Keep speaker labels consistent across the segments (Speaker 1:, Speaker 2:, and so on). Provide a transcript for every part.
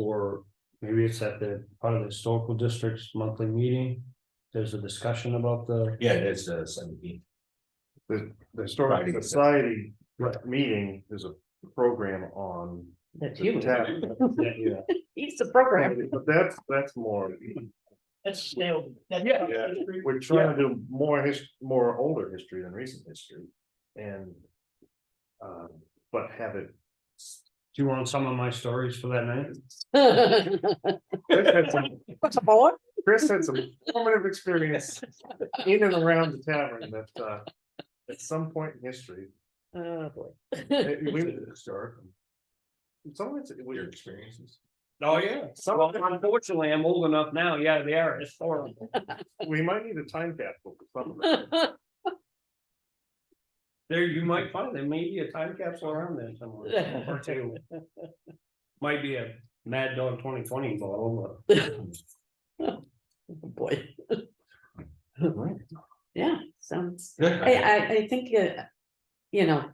Speaker 1: for, maybe it's at the, part of the historical district's monthly meeting. There's a discussion about the,
Speaker 2: Yeah, it is uh seventeen.
Speaker 3: The, the
Speaker 2: Right.
Speaker 3: historic society meeting is a program on.
Speaker 4: That's
Speaker 3: the
Speaker 4: you.
Speaker 3: tab-
Speaker 1: yeah,
Speaker 4: He's the program.
Speaker 3: But that's, that's more,
Speaker 4: That's still. that's
Speaker 3: Yeah.
Speaker 4: public history.
Speaker 3: we're trying to do more his, more older history than recent history and. Um, but have it,
Speaker 1: do you want some of my stories for that night?
Speaker 3: Chris had some,
Speaker 4: What's a board?
Speaker 3: Chris had some formative experience in and around the tavern that, uh. At some point in history,
Speaker 4: Oh, boy.
Speaker 3: it- we, historic. Some of it's, it was-
Speaker 2: Your experiences.
Speaker 1: Oh, yeah.
Speaker 3: some
Speaker 1: Well,
Speaker 3: of it-
Speaker 1: unfortunately, I'm old enough now, yeah, they are historical.
Speaker 3: we might need a time capsule for some of it.
Speaker 4: Oh,
Speaker 1: There, you might find, there may be a time capsule around there somewhere. or two. Might be a Mad Dog twenty twenty bottle, but.
Speaker 4: Oh, Boy. Yeah, sounds, I,
Speaker 2: Yeah.
Speaker 4: I, I think, uh, you know.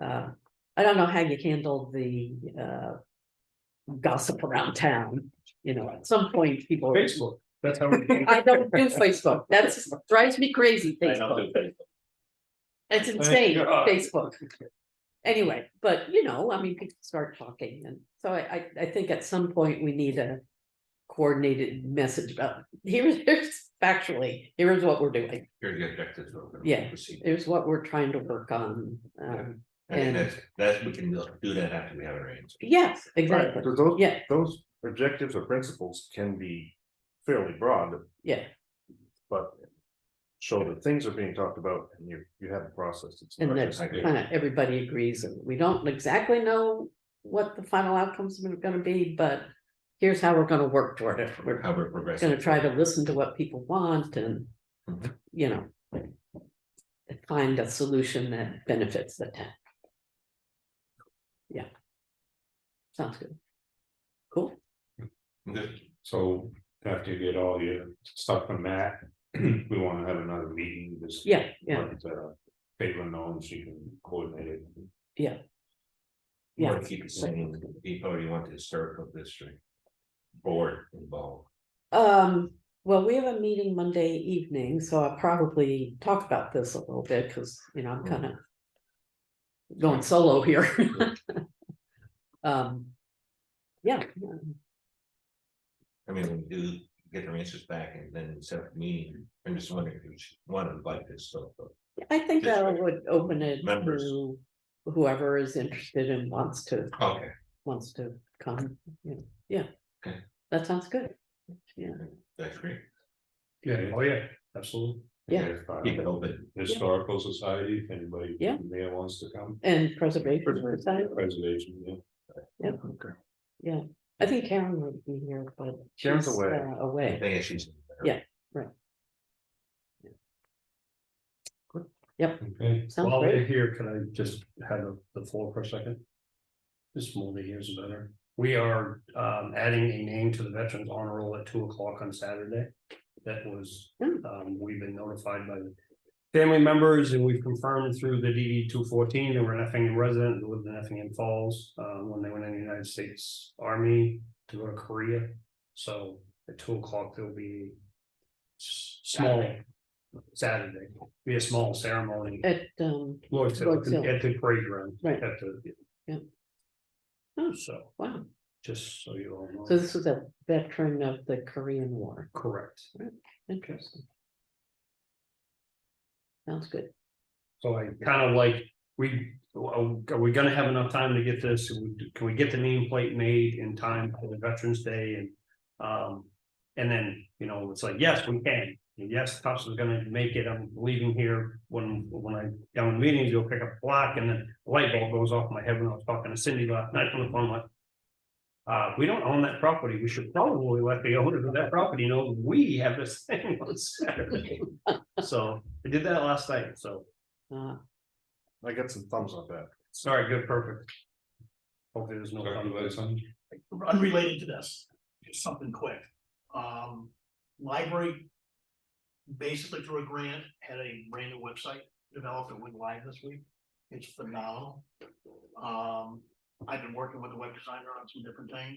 Speaker 4: Uh, I don't know how you handle the, uh. Gossip around town, you know, at some point people.
Speaker 1: Facebook, that's how. we-
Speaker 4: I don't do Facebook. That's drives me crazy, Facebook. It's insane,
Speaker 1: God.
Speaker 4: Facebook. Anyway, but you know, I mean, people start talking and so I, I, I think at some point we need a. Coordinated message about, here's, here's factually, here's what we're doing,
Speaker 2: Here are the objectives. we're gonna
Speaker 4: Yeah.
Speaker 2: proceed.
Speaker 4: here's what we're trying to work on. Um,
Speaker 2: I think
Speaker 4: And-
Speaker 2: that's, that's, we can do that after we have it arranged.
Speaker 4: yes,
Speaker 3: Right,
Speaker 4: exactly,
Speaker 3: because those,
Speaker 4: yeah,
Speaker 3: those objectives or principles can be fairly broad,
Speaker 4: yeah,
Speaker 3: but. Show that things are being talked about and you, you have a process. It's
Speaker 4: and
Speaker 3: not
Speaker 4: that's
Speaker 3: just-
Speaker 2: I agree.
Speaker 4: kind of, everybody agrees, and we don't exactly know. What the final outcomes are gonna be, but here's how we're gonna work toward it, we're
Speaker 2: How we're progressing.
Speaker 4: gonna try to listen to what people want and,
Speaker 2: Mhm.
Speaker 4: you know. Find a solution that benefits the town. Yeah. Sounds good. Cool,
Speaker 2: Good.
Speaker 5: So after you get all your stuff from Matt, we wanna have another meeting this.
Speaker 4: yeah, yeah,
Speaker 5: Let, uh, Caitlin know, she can coordinate it.
Speaker 2: You
Speaker 4: yeah,
Speaker 2: wanna Keep it same, people, you want the historical district. Board involved.
Speaker 4: um, well, we have a meeting Monday evening, so I'll probably talk about this a little bit, cause you know, I'm kind of. Going solo here. Um. Yeah,
Speaker 2: I mean, when we do get our answers back and then set up a meeting. I'm just wondering if you want to invite this, so.
Speaker 4: I think
Speaker 2: Just
Speaker 4: that would open it
Speaker 2: members.
Speaker 4: to whoever is interested and wants to,
Speaker 2: Okay.
Speaker 4: wants to come, you know, yeah.
Speaker 2: Okay.
Speaker 4: That sounds good.
Speaker 2: That's great.
Speaker 1: Yeah, oh, yeah, absolutely.
Speaker 4: Yeah.
Speaker 5: If, uh,
Speaker 2: Keep it open.
Speaker 5: Historical Society, if anybody.
Speaker 4: Yeah.
Speaker 5: from There wants to come,
Speaker 4: And preservation, Society,
Speaker 5: preservation, yeah.
Speaker 4: yeah, I think Karen would be here, but
Speaker 3: Karen's
Speaker 4: she's
Speaker 3: away.
Speaker 4: uh,
Speaker 2: I
Speaker 4: away.
Speaker 2: think it's she's.
Speaker 4: Yeah.
Speaker 5: Okay,
Speaker 4: Sounds
Speaker 1: While they're
Speaker 4: great.
Speaker 1: here, can I just have the floor for a second? This movie here is better. We are um adding a name to the Veterans Honor Roll at two o'clock on Saturday. That was,
Speaker 4: Hmm.
Speaker 1: um, we've been notified by the family members and we've confirmed through the DD two fourteen, they were an Effingham resident, who lived in Effingham Falls. Uh, when they went in the United States Army to go to Korea, so at two o'clock, there'll be s- small Saturday, be a small ceremony.
Speaker 4: At, um,
Speaker 1: Lloyd's Hill,
Speaker 4: Lloyd's Hill.
Speaker 1: at the parade ground.
Speaker 4: Right.
Speaker 1: At the.
Speaker 4: Yeah. Oh.
Speaker 1: So,
Speaker 4: wow,
Speaker 1: just so you all know.
Speaker 4: so this was a veteran of the Korean War,
Speaker 1: Correct.
Speaker 4: interesting. Sounds good,
Speaker 1: So I kind of like, we, are we gonna have enough time to get this? Can we get the nameplate made in time for the Veterans Day and? Um, and then, you know, it's like, yes, we can. And Yes, Tufts is gonna make it. I'm leaving here when, when I, down in meetings, you'll pick up a block and then the light bulb goes off in my head when I was talking to Cindy last night on the phone like. Uh, we don't own that property. We should probably let the owner of that property know we have this thing on Saturday. So I did that last night, so.
Speaker 4: uh,
Speaker 3: I got some thumbs on that.
Speaker 1: Sorry, good, perfect. Hopefully there's no.
Speaker 5: Talking about something.
Speaker 6: unrelated to this, just something quick. Um, library. Basically through a grant, had a brand new website developed that went live this week. It's phenomenal. Um, I've been working with a web designer on some different things.